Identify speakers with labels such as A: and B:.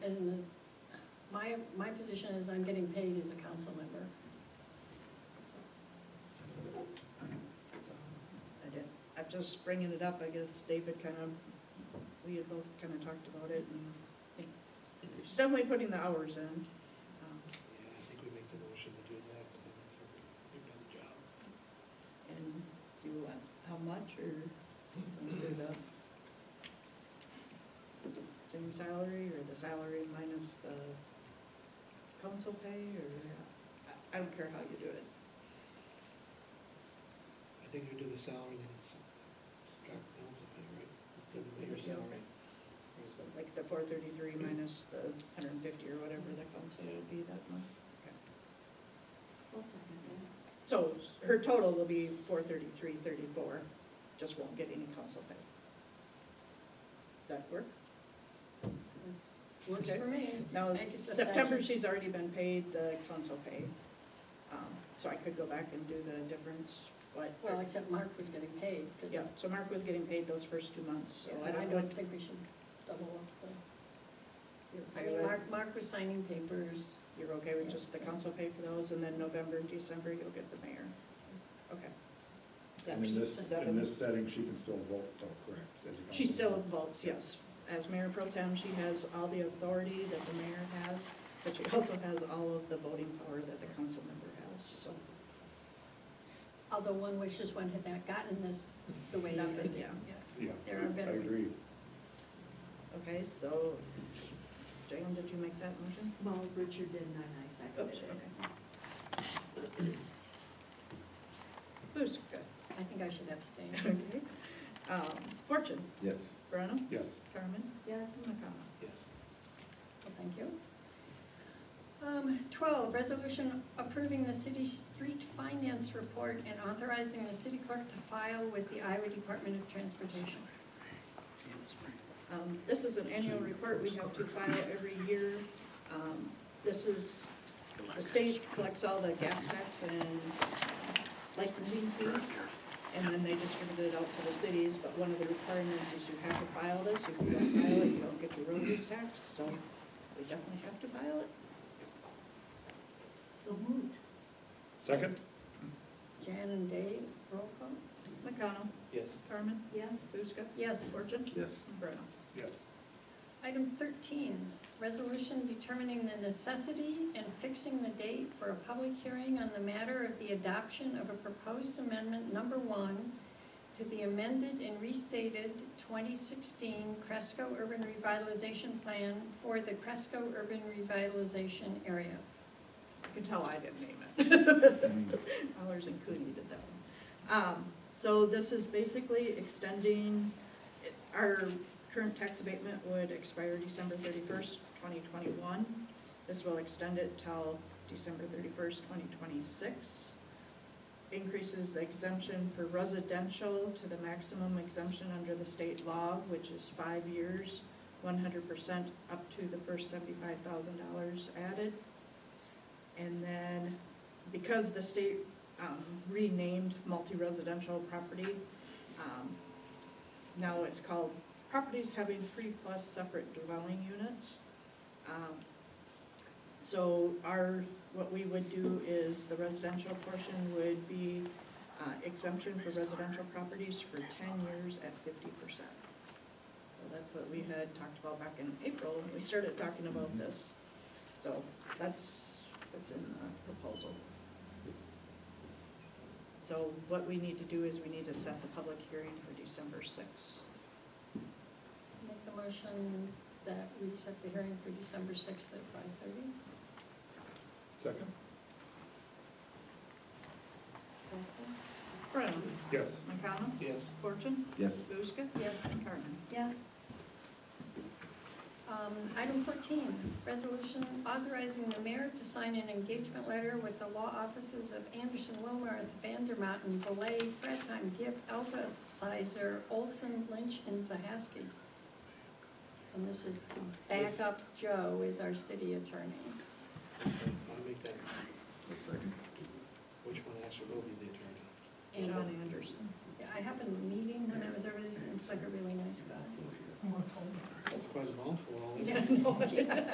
A: I, my position is I'm getting paid as a council member.
B: I did, I'm just bringing it up, I guess David kind of, we had both kind of talked about it and I think she's definitely putting the hours in. um,
C: Yeah, I think we make the motion to do that, because I think you're- you've done the job.
B: And do you want, how much or wanna do the same salary or the salary minus the council pay or, I, I don't care how you do it.
C: I think you do the salary, then it's subtract the council pay, right? Do the mayor's
B: Yeah.
C: salary.
B: So Like the four thirty-three minus the hundred and fifty or whatever the council would be that month.
D: I'll second that.
B: So her total will be four thirty-three, thirty-four, just won't get any council pay. Does that work?
A: Works
B: Okay.
A: for me.
B: Now,
A: I could just
B: September,
A: add-
B: she's already been paid the council pay. Um, So I could go back and do the difference, but,
A: Well, except Mark was getting paid. but-
B: yeah, so Mark was getting paid those first two months, so I
A: But I
B: don't know.
A: don't think we should double up the. I
B: I
A: mean,
B: would-
A: Mark, Mark was signing papers.
B: You're okay with just the council pay for those, and then November, and December, you'll get the mayor? Okay. Is that-
E: And in this,
B: is that
E: in
B: the-
E: this setting, she can still vote, though, correct? as a
B: She
E: council
B: still
E: member.
B: votes, yes. As mayor pro tem, she has all the authority that the mayor has, but she also has all of the voting power that the council member has, so.
A: Although one wishes one had not gotten this the way they
B: Nothing,
A: did.
B: yeah.
E: Yeah,
A: There are better
E: I
A: ways.
E: agree.
B: Okay, so, Jalen, did you make that motion? Oh,
D: Well, Richard did, and I
B: Oops,
D: seconded it.
B: okay. Who's good?
A: I think I should abstain.
B: Okay. Um, Fortune,
E: Yes.
B: Brenham,
E: Yes.
B: Carmen,
D: Yes,
B: McConnell.
C: Yes.
A: Well, Thank you. Um, Twelve, resolution approving the city street finance report and authorizing the city clerk to file with the Iowa Department of Transportation.
B: Um, This is an annual report we have to file every year. Um, This is, the state collects all the gas tax and licensing fees, and then they distribute it out to the cities, but one of the requirements is you have to file this. If you don't file it, you don't get your road use tax, so we definitely have to file it.
D: so moved.
E: Second?
A: Jan and Dave, roll call?
B: McConnell,
C: Yes.
B: Carmen,
D: Yes,
B: Buska,
A: Yes.
B: Fortune,
E: Yes.
B: and Bruno.
E: Yes.
A: Item thirteen, resolution determining the necessity and fixing the date for a public hearing on the matter of the adoption of a proposed amendment number one to the amended and restated twenty sixteen Cresco Urban Revitalization Plan for the Cresco Urban Revitalization Area.
B: You can tell I didn't name it.
E: Mm.
B: Allers and Cooney did that one. Um, so this is basically extending, our current tax abatement would expire December thirty-first, twenty twenty-one. This will extend it till December thirty-first, twenty twenty-six. Increases the exemption for residential to the maximum exemption under the state law, which is five years, one hundred percent up to the first seventy-five thousand dollars added. And then, because the state um, renamed multi-residential property, um, now it's called properties having three plus separate dwelling units. Um, So our, what we would do is the residential portion would be uh, exemption for residential properties for ten years at fifty percent. So that's what we had talked about back in April when we started talking about this. So that's, that's in the proposal. So what we need to do is we need to set the public hearing for December sixth.
A: Make the motion that we set the hearing for December sixth at five thirty.
E: Second?
B: Brown,
E: Yes.
B: McConnell,
C: Yes.
B: Fortune,
E: Yes.
B: Buska,
A: Yes.
B: and Carmen.
D: yes,
A: Um, Item 14, resolution authorizing the mayor to sign an engagement letter with the law offices of Anderson, Wilmarth, Vandermountain, Belay, Breton, Gibb, Alba, Sizer, Olson, Lynch, and Zahaski. And this is to back up Joe as our city attorney.
C: I'll make that,
E: Second?
C: which one actually will be the attorney?
A: And
B: John Anderson.
A: I happened to meet him when I was over there, seems like a really nice guy.
C: That's quite a mouthful.
A: Yeah, no, yeah.